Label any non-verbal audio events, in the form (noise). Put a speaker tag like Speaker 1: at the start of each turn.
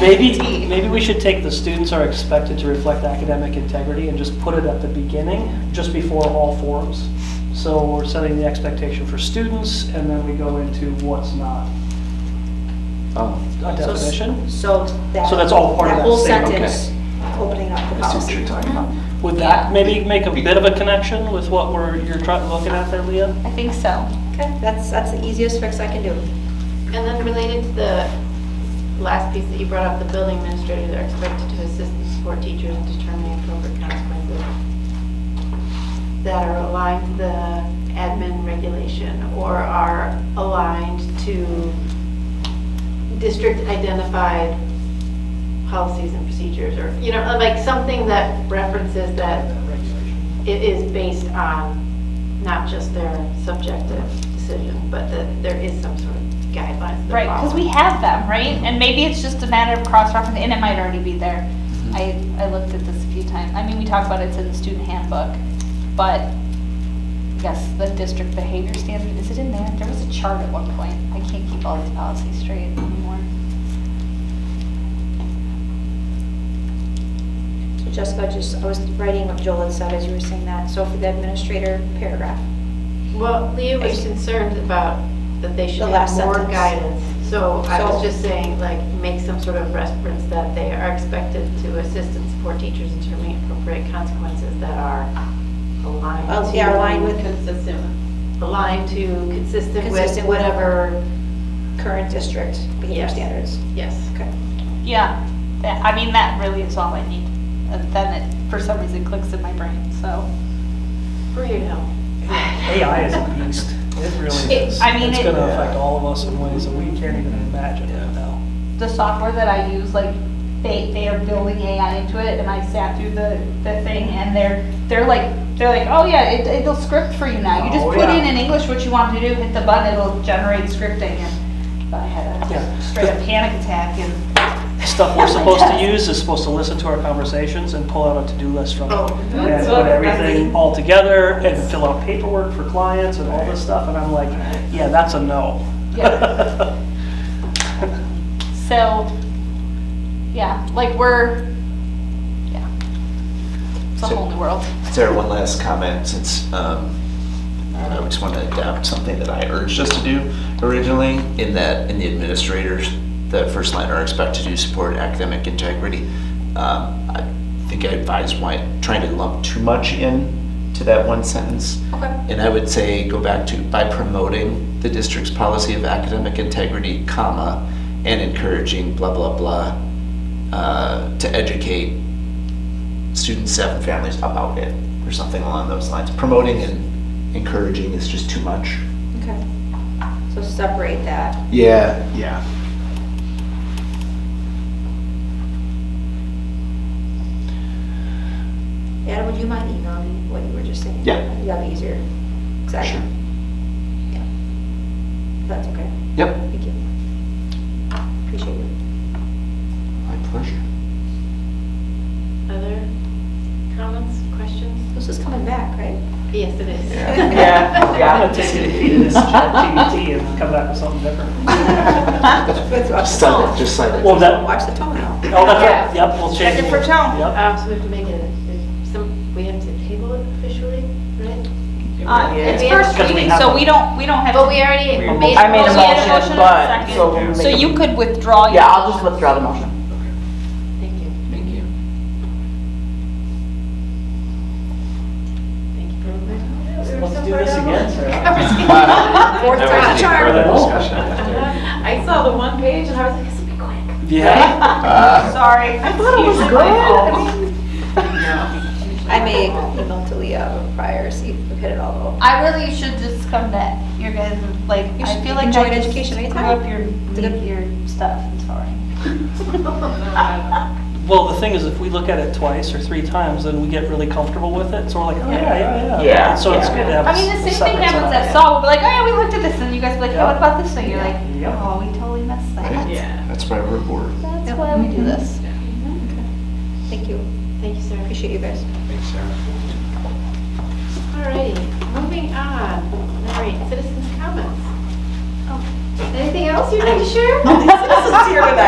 Speaker 1: Maybe, maybe we should take the students are expected to reflect academic integrity and just put it at the beginning, just before all forums. So we're setting the expectation for students, and then we go into what's not
Speaker 2: Oh,
Speaker 1: a
Speaker 3: So s-
Speaker 1: definition.
Speaker 3: So that.
Speaker 1: So that's all part of that
Speaker 3: whole
Speaker 1: statement,
Speaker 3: sentence, opening up the
Speaker 2: I see what you're
Speaker 3: policy.
Speaker 2: talking about.
Speaker 1: Would that maybe make a bit of a connection with what we're, you're trying, looking at there, Leah?
Speaker 4: I think so.
Speaker 3: Okay, that's, that's the easiest fix I can do.
Speaker 5: And then related to the last piece that you brought up, the building administrators are expected to assist and support teachers in determining appropriate consequences that are aligned to the admin regulation or are aligned to district identified policies and procedures or, you know, like something that references that it is based on not just their subjective decision, but that there is some sort of guidelines. that
Speaker 4: Right, because we
Speaker 5: follow.
Speaker 4: have them, right? And maybe it's just a matter of cross-referencing, and it might already be there. I, I looked at this a few times. I mean, we talk about it's in the student handbook, but yes, the district behavior standard, is it in there? There was a chart at one point. I can't keep all these policies straight anymore.
Speaker 3: So Jessica, just, I was writing what Joel had said as you were saying that, so for the administrator paragraph.
Speaker 5: Well, Leah was concerned about that they
Speaker 3: The
Speaker 5: should
Speaker 3: last
Speaker 5: have more
Speaker 3: sentence.
Speaker 5: guidance. So I was
Speaker 3: So-
Speaker 5: just saying, like, make some sort of reference that they are expected to assist and support teachers in determining appropriate consequences that are aligned
Speaker 3: Oh,
Speaker 5: to.
Speaker 3: yeah, aligned with-
Speaker 5: Consistent, aligned to, consistent with
Speaker 3: Consistent with-
Speaker 5: whatever,
Speaker 3: current district behavior
Speaker 5: Yes.
Speaker 3: standards.
Speaker 5: yes.
Speaker 3: Okay.
Speaker 4: Yeah, that, I mean, that really is all I need. And then it, for some reason, clicks in my brain, so.
Speaker 5: For your help.
Speaker 1: AI is (sighs) (laughs) a beast. It really
Speaker 4: It-
Speaker 1: is.
Speaker 4: I mean,
Speaker 1: It's
Speaker 4: it-
Speaker 1: gonna affect all of us in ways that we can't even imagine right now.
Speaker 4: the software that I use, like, they, they are building AI into it, and I sat through the, the thing, and they're, they're like, they're like, oh yeah, it, it'll script for you now, you just
Speaker 1: Oh,
Speaker 4: put in
Speaker 1: yeah.
Speaker 4: in English what you want to do, hit the button, it'll generate scripting, and I had
Speaker 1: Yeah.
Speaker 4: a straight up panic attack, and,
Speaker 1: Stuff we're supposed to use is supposed to listen to our conversations and pull out a to-do list from it.
Speaker 5: Oh,
Speaker 1: And
Speaker 5: that's
Speaker 1: put
Speaker 5: what-
Speaker 1: everything all together and fill out paperwork for clients and all this stuff, and I'm like, yeah, that's a no.
Speaker 4: Yeah.
Speaker 1: (laughs)
Speaker 4: so, yeah, like, we're, yeah, it's a
Speaker 2: So-
Speaker 4: whole new world.
Speaker 2: Sarah, one last comment, since um, I just want to adapt something that I urged us to do originally, in that, in the administrators, the first line are expected to support academic integrity. Um, I think I advise why, trying to lump too much in to that one sentence.
Speaker 4: Okay.
Speaker 2: And I would say, go back to, by promoting the district's policy of academic integrity, comma, and encouraging blah, blah, blah, uh, to educate students, staff, and families about it, or something along those lines. Promoting and encouraging is just too much.
Speaker 3: Okay. So separate that.
Speaker 2: Yeah. Yeah.
Speaker 3: Adam, would you mind emailing me what you were just saying?
Speaker 2: Yeah.
Speaker 3: That'd be easier. Exactly.
Speaker 2: Sure.
Speaker 3: Yeah. That's okay.
Speaker 2: Yep.
Speaker 3: Thank you. Appreciate you.
Speaker 2: My (laughs) pleasure.
Speaker 5: Other comments, questions?
Speaker 3: This is coming back, right?
Speaker 5: Yes, it is. (laughs)
Speaker 2: Yeah.
Speaker 1: Yeah, yeah, I'm gonna take it to this ChatGPT and come back with something different. Oh,
Speaker 2: Just sign it, just sign it.
Speaker 1: Well, that,
Speaker 3: Watch the tone now.
Speaker 1: oh, that's right, yep, we'll change.
Speaker 4: Check it for tone.
Speaker 1: Yep.
Speaker 5: Um, so we have to make it, if some, we have to table it officially, right?
Speaker 4: Uh, it's
Speaker 5: Yeah.
Speaker 4: first
Speaker 1: Because we
Speaker 4: reading,
Speaker 1: have
Speaker 4: so
Speaker 1: a-
Speaker 4: we don't, we don't have.
Speaker 5: But
Speaker 4: to-
Speaker 5: we already made.
Speaker 6: I made a
Speaker 4: Well, we had a motion
Speaker 6: motion,
Speaker 4: and a
Speaker 6: but,
Speaker 4: second.
Speaker 6: so we'll
Speaker 4: So
Speaker 6: make a-
Speaker 4: you could withdraw your.
Speaker 6: Oh, Yeah, I'll just withdraw the motion.
Speaker 5: Thank you.
Speaker 2: Thank (laughs) you.
Speaker 5: Thank you for reminding me.
Speaker 1: Let's do this again,
Speaker 5: (laughs)
Speaker 1: Sarah.
Speaker 3: Fourth time's a charm.
Speaker 5: I saw the one page and I was like, this will be quick. (laughs)
Speaker 1: Yeah.
Speaker 4: Sorry. I thought it was good.
Speaker 3: I may email to Leah prior, see if we've hit it all though.
Speaker 4: I really should just come to your guys, like,
Speaker 3: You
Speaker 4: I
Speaker 3: should-
Speaker 4: feel
Speaker 3: you
Speaker 4: like
Speaker 3: can join
Speaker 4: I just
Speaker 3: education
Speaker 4: screw
Speaker 3: anytime.
Speaker 4: up your,
Speaker 3: Did it-
Speaker 4: your stuff, I'm sorry. (laughs)
Speaker 1: Well, the thing is, if we look at it twice or three times, then we get really comfortable with it, so we're like, oh, yeah, yeah, yeah.
Speaker 6: Yeah,
Speaker 1: So it's
Speaker 6: yeah.
Speaker 1: good to have.
Speaker 4: I mean, the
Speaker 1: a
Speaker 4: same thing
Speaker 1: separate
Speaker 4: happens
Speaker 1: side.
Speaker 4: at Saw, we'll be like, oh yeah, we looked at this, and you guys will be like, oh, what about this thing? You're like,
Speaker 1: Yeah.
Speaker 4: oh, we totally missed that.
Speaker 6: Yeah.
Speaker 2: That's why we're bored.
Speaker 4: That's why we do this.
Speaker 3: Thank you.
Speaker 5: Thank you, Sarah.
Speaker 3: Appreciate you guys.
Speaker 2: Thanks, Sarah.
Speaker 5: Alrighty, moving on. Alright, citizens' comments. Oh. Anything else you'd like to share? (laughs)
Speaker 6: (laughs) This is here tonight.